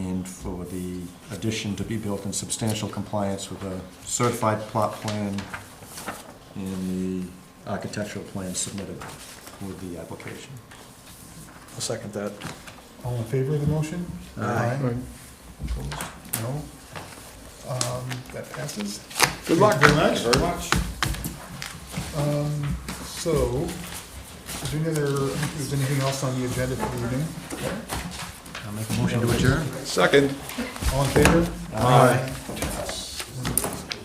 the addition to be built in substantial compliance with a certified plot plan and the architectural plan submitted with the application. I'll second that. All in favor of the motion? Aye. Opposed? No? Um, That passes. Good luck. Thank you very much. Very much. Um, So, is there any other, is anything else on the agenda for the evening? I'll make a motion to adjourn. Second. All in favor? Aye. Aye.